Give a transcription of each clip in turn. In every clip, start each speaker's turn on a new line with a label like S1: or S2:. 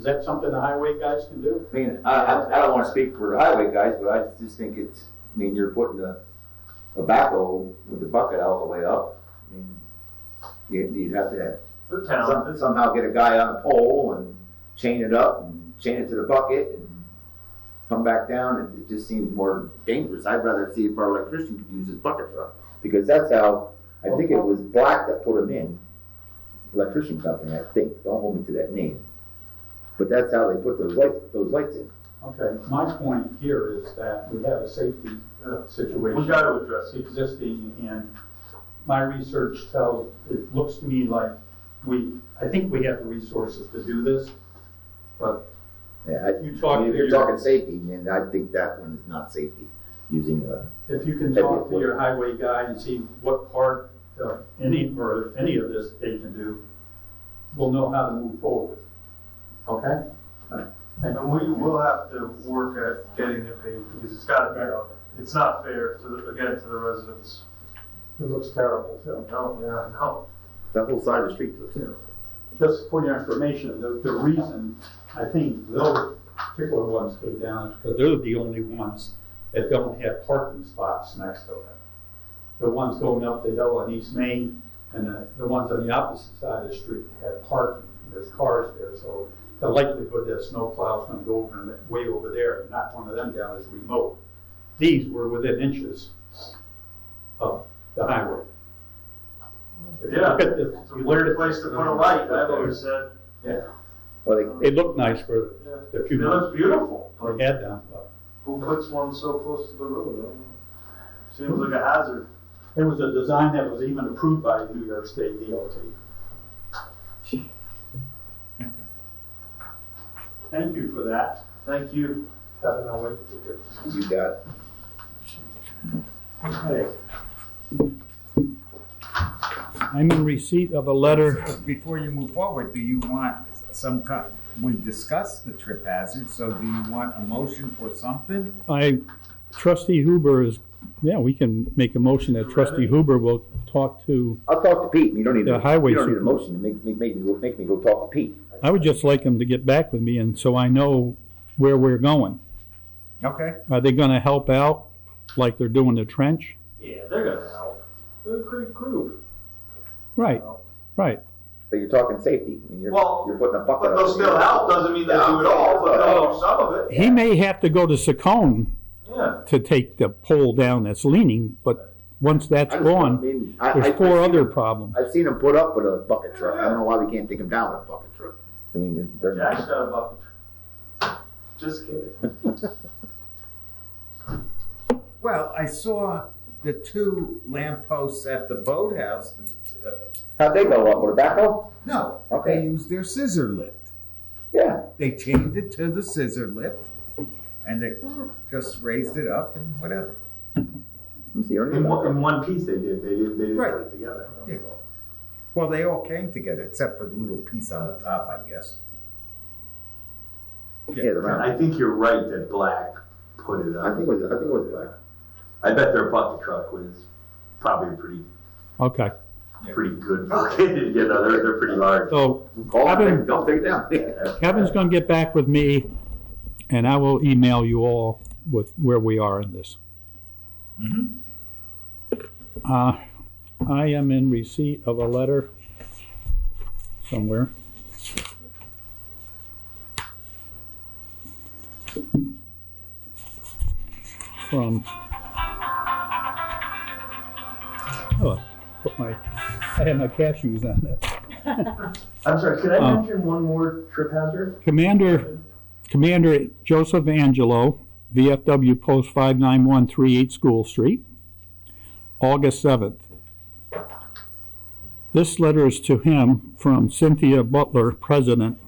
S1: that something the highway guys can do?
S2: I mean, I, I, I don't wanna speak for the highway guys, but I just think it's, I mean, you're putting a, a backhoe with the bucket all the way up. I mean, You, you'd have to
S3: They're
S2: some-
S3: talented.
S2: somehow get a guy on a pole and chain it up and chain it to the bucket and come back down, and it just seems more dangerous. I'd rather see if our electrician could use his bucket truck, because that's how, I think it was Black that put him in. Electrician company, I think, don't hold me to that name. But that's how they put those lights, those lights in.
S1: Okay, my point here is that we have a safety uh, situation.
S3: We gotta address it.
S1: Existing, and my research tells, it looks to me like we, I think we have the resources to do this, but
S2: Yeah, I-
S1: you talk
S2: I
S1: to
S2: mean, if you're
S1: your,
S2: talking safety, and I think that one is not safety, using uh, a,
S1: if you can talk to your highway guy and see what part, uh, any, or if any of this they can do, we'll know how to move forward. Okay?
S3: And we will have to work at getting it paid because it's gotta be out. It's not fair to, the again, to the residents.
S1: It looks terrible, too.
S3: No, yeah, no.
S2: that whole side of the street looks terrible.
S1: just for your information, the, the reason I think those particular ones go down is because they're the only ones that don't have parking spots next to them. The ones going up the hill on East Main and the, the ones on the opposite side of the street have parking. There's cars there, so the likelihood that a snowplow's gonna go over and way over there and knock one of them down is remote. These were within inches of the highway.
S3: Yeah.
S1: If
S3: It's a
S1: you
S3: weird
S1: learned it,
S3: place to put a light, I've always said.
S2: Well, they,
S1: It looked nice for
S3: Yeah.
S1: the
S3: It
S1: few months
S3: looks beautiful.
S1: we had them, but
S3: Who puts one so close to the road? I don't know. Seems like a hazard.
S1: it was a design that was even approved by New York State DOT. Thank you for that.
S3: Thank you.
S1: Kevin, I'll wait to hear.
S2: you got,
S1: Okay.
S4: I'm in receipt of a letter.
S5: Before you move forward, do you want some kind, we've discussed the trip hazard, so do you want a motion for something?
S4: I, trustee Huber is, yeah, we can make a motion that trustee Huber will talk to,
S2: I'll talk to Pete, and you don't need,
S4: The
S2: to-
S4: highway
S2: you don't need a
S4: super-
S2: motion to make, make, make me, go- make me go talk to Pete.
S4: I would just like him to get back with me and so I know where we're going.
S5: Okay,
S4: Are they gonna help out like they're doing the trench?
S3: Yeah, they're gonna help. They're a great group.
S4: Right, right.
S2: But you're talking safety, and you're,
S3: Well,
S2: you're putting a bucket
S3: But
S2: up.
S3: they'll still help, doesn't mean they do it all, but they'll do some of it.
S4: He may have to go to Secone
S3: Yeah.
S4: to take the pole down that's leaning, but once that's gone, there's four other problems.
S2: I've seen him put up with a bucket truck, I don't know why we can't take him down with a bucket truck. I mean, they're
S3: Jack's
S2: not,
S3: got a bucket. Just kidding.
S5: well, I saw the two lampposts at the boathouse, that, uh,
S2: how'd they go up, with a backhoe?
S5: no,
S2: Okay.
S5: they used their scissor lift.
S2: Yeah,
S5: They chained it to the scissor lift, and they just raised it up and whatever.
S2: let's see, Ernie.
S6: In one, in one piece they did, they did, they did put
S5: Right.
S6: it together.
S5: Yeah. Well, they all came together, except for the little piece on the top, I guess.
S2: Yeah, the round,
S6: I think you're right that Black put it
S2: I
S6: up.
S2: think it was, I think it was black.
S6: I bet their bucket truck was probably pretty,
S4: Okay,
S6: pretty good bucket, you know, they're, they're pretty large.
S4: so
S2: Call him,
S4: Kevin-
S2: take- don't take it down.
S4: Kevin's gonna get back with me and I will email you all with where we are in this.
S5: Mm-hmm.
S4: Uh, I am in receipt of a letter somewhere. From. Oh, put my, I had my cashews on that.
S3: I'm sorry, can I
S4: Um,
S3: mention one more trip hazard?
S4: Commander, Commander Joseph Angelo, VFW Post 59138 School Street, August 7th. This letter is to him from Cynthia Butler, President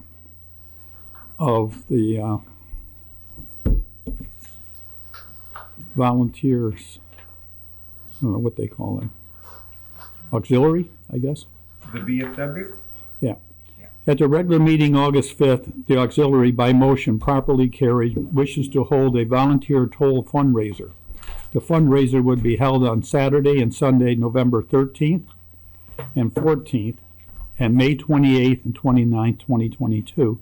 S4: of the uh, Volunteers, I don't know what they call them, auxiliary, I guess.
S5: The BFW?
S4: At the regular meeting August 5th, the auxiliary by motion properly carried wishes to hold a volunteer toll fundraiser. The fundraiser would be held on Saturday and Sunday, November 13th and 14th, and May 28th and 29th, 2022,